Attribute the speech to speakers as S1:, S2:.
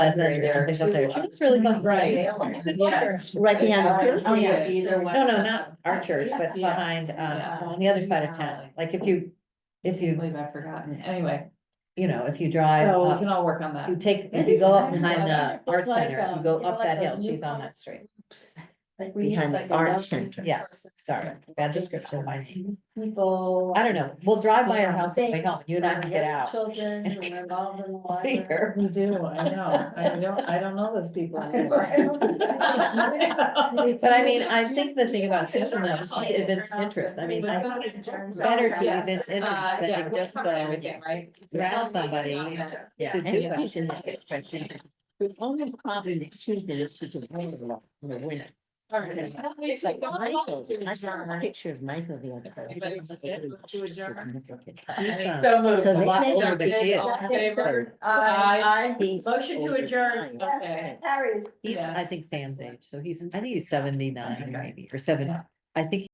S1: Pleasant or something up there. She looks really pleasant.
S2: Right. Yeah.
S1: Right behind the church.
S2: Oh, yeah.
S1: No, no, not our church, but
S2: Yeah.
S1: behind, um, on the other side of town. Like if you, if
S2: I
S1: you,
S2: believe I've forgotten. Anyway, uh,
S1: you know, if you drive
S2: so we
S1: up,
S2: can all work on
S1: if
S2: that.
S1: you take, if you go up behind the art center, if
S3: um,
S1: you go up that hill, she's on that street.
S3: Behind the art center.
S1: Yeah, sorry, bad description of my name.
S3: People.
S1: I don't know. We'll drive by her house on the way home. You and I can get out.
S3: Children who are involved in the
S1: See her.
S2: We do, I know. I don't, I don't know those people anymore.
S3: library.
S1: But I mean, I think the thing about Susan though, is she evinced interest. I mean, I think it's better to
S2: Yes.
S1: evince interest
S2: Uh, yeah,
S1: than to
S2: we're
S1: just
S2: from
S1: go.
S2: everything, right?
S1: rattle somebody,
S3: Yeah.
S1: to
S3: and
S1: do
S3: you
S1: it.
S3: can see that expression. The only problem that Susan is she's a woman in the winter. It's like Michael, I saw a picture of Michael the other day.
S2: Anybody wants to sit? Let's do a German.
S1: You sound
S2: So
S1: A
S2: moved.
S3: So they
S1: lot
S3: make-
S1: older than she is.
S2: All in favor?
S4: I,
S3: He's
S4: Motion to
S3: older than
S4: adjourn.
S3: I am.
S2: Okay.
S4: Harry's.
S1: He's, I
S2: Yes.
S1: think Sam's age, so he's, I think he's seventy-nine maybe, or seven, I think